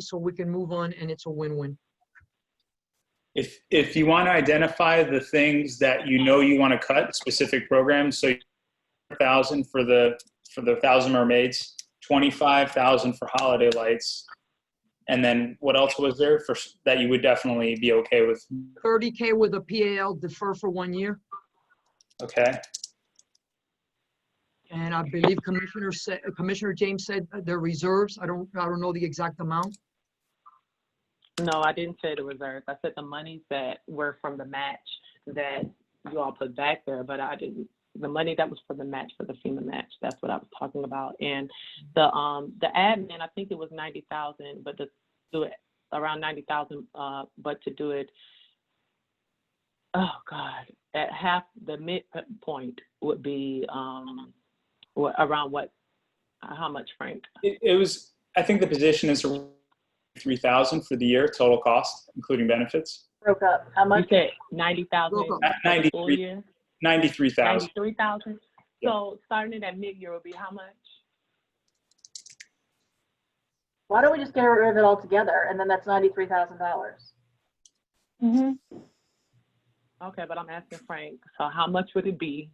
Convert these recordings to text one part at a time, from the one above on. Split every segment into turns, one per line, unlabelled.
so we can move on and it's a win-win.
If, if you want to identify the things that you know you want to cut, specific programs, so thousand for the, for the Thousand Mermaids, twenty-five thousand for Holiday Lights, and then what else was there for, s- that you would definitely be okay with?
Thirty K with a PAL defer for one year.
Okay,
And I believe Commissioner said, Commissioner James said the reserves. I don't, I don't know the exact amount.
No, I didn't say the reserves. I said the monies that were from the match that you all put back there, but I didn't, the money that was for the match, for the FEMA match, that's what I was talking about. And the, um, the admin, I think it was ninety thousand, but to do it around ninety thousand, uh, but to do it, oh God, at half the midpoint would be, um, wha- around what, how much, Frank?
it, it was, I think the position is three thousand for the year, total cost, including benefits,
broke up. How
You
much?
said ninety thousand
Welcome.
for the full
93.
year?
ninety-three thousand.
Ninety-three thousand?
Yeah.
So starting it at mid-year will be how much?
Why don't we just get rid of it altogether? And then that's ninety-three thousand dollars.
Okay, but I'm asking Frank, so how much would it be,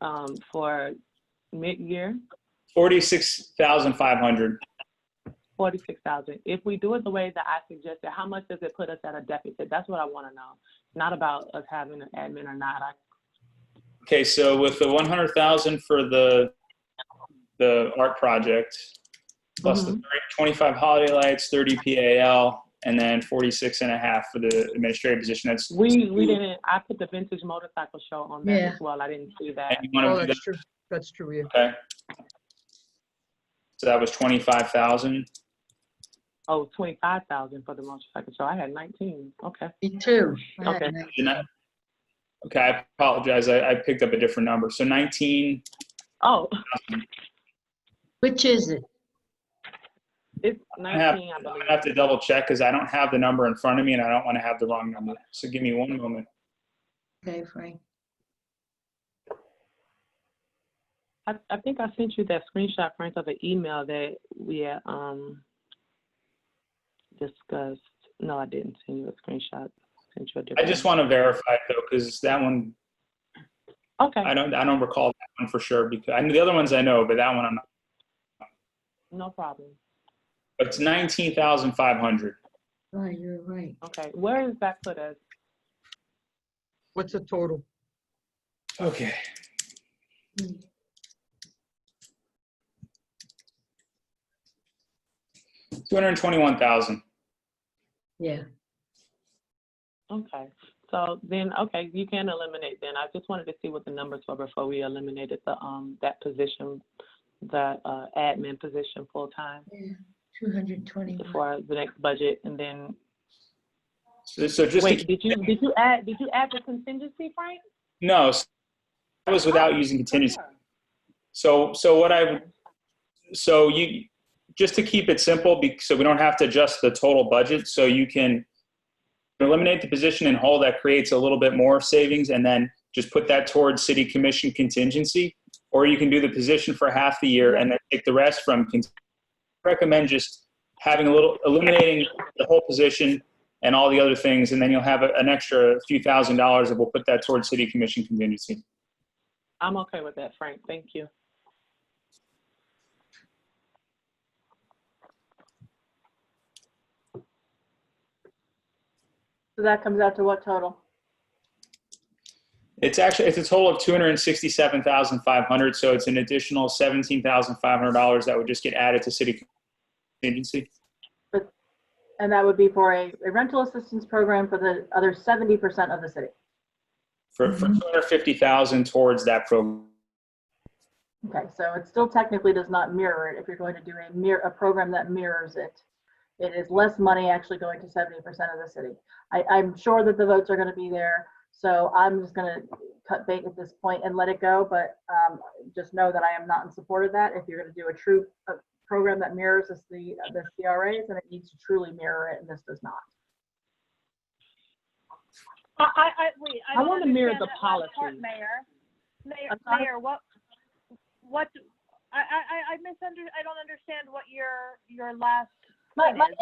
um, for mid-year?
Forty-six thousand five hundred.
Forty-six thousand. If we do it the way that I suggested, how much does it put us at a deficit? That's what I wanna know. Not about us having an admin or not. I-
Okay, so with the one hundred thousand for the, the art project, plus the
Mhm.
twenty-five holiday lights, thirty PAL, and then forty-six and a half for the administrative position, that's, and
We, we didn't, I put the vintage motorcycle show on there
Yeah.
as well. I didn't see that.
you
Oh,
want to do
that's true. That's true, yeah.
that, okay? So that was twenty-five thousand,
Oh, twenty-five thousand for the motorcycle show. I had nineteen. Okay.
Me too. I had
Okay.
no-
okay, I apologize, I, I picked up a different number, so nineteen,
Oh,
Which is it?
it's
I have,
nineteen, I
I'm
believe.
gonna have to double check, because I don't have the number in front of me, and I don't want to have the wrong number, so give me one moment.
Okay, Frank.
I, I think I sent you that screenshot, Frank, of an email that we had, um, discussed. No, I didn't send you a screenshot. I Sent you a
I
different.
just
one.
want to verify it, though, because that one I
Okay,
don't I don't recall that one for sure because I know the other ones I know, but that one I'm not.
no problem.
But it's nineteen thousand five hundred.
Oh, you're right.
Okay, where does that put us?
What's the total?
Okay. Two hundred twenty-one thousand.
Yeah.
Okay, so then, okay, you can eliminate then. I just wanted to see what the numbers were before we eliminated the, um, that position, the, uh, admin position full-time
Two hundred twenty-one.
for the next budget. And then,
So, so just to,
wait, did you, did you add, did you add the contingency, Frank?
no, so that was without using contingency.
Sure.
So so what I so you just to keep it simple, be- so we don't have to adjust the total budget. So you can eliminate the position in whole. That creates a little bit more savings, and then just put that towards city commission contingency. Or you can do the position for half the year and then take the rest from. con- Recommend just having a little eliminating the whole position and all the other things, and then you'll have a, an extra few thousand dollars, and we'll put that towards city commission contingency.
I'm okay with that, Frank. Thank you.
So that comes out to what total?
It's actually, it's a total of two hundred and sixty-seven thousand five hundred, so it's an additional seventeen thousand five hundred dollars that would just get added to city contingency.
And that would be for a, a rental assistance program for the other seventy percent of the city.
For, for two hundred fifty thousand towards that program.
Okay, so it still technically does not mirror it if you're going to do a mirror, a program that mirrors it. It is less money actually going to seventy percent of the city. I, I'm sure that the votes are gonna be there, so I'm just gonna cut bait at this point and let it go, but, um, just know that I am not in support of that. If you're gonna do a true, uh program that mirrors this, the, the CRAs, then it needs to truly mirror it, and this does not.
I, I, I, wait, I
I
don't
wanna mirror
understand
the
that last part,
policy.
Mayor, Mayor,
I'm not-
Mayor, what, what, I, I, I- I misunder, I don't understand what your, your last
My, my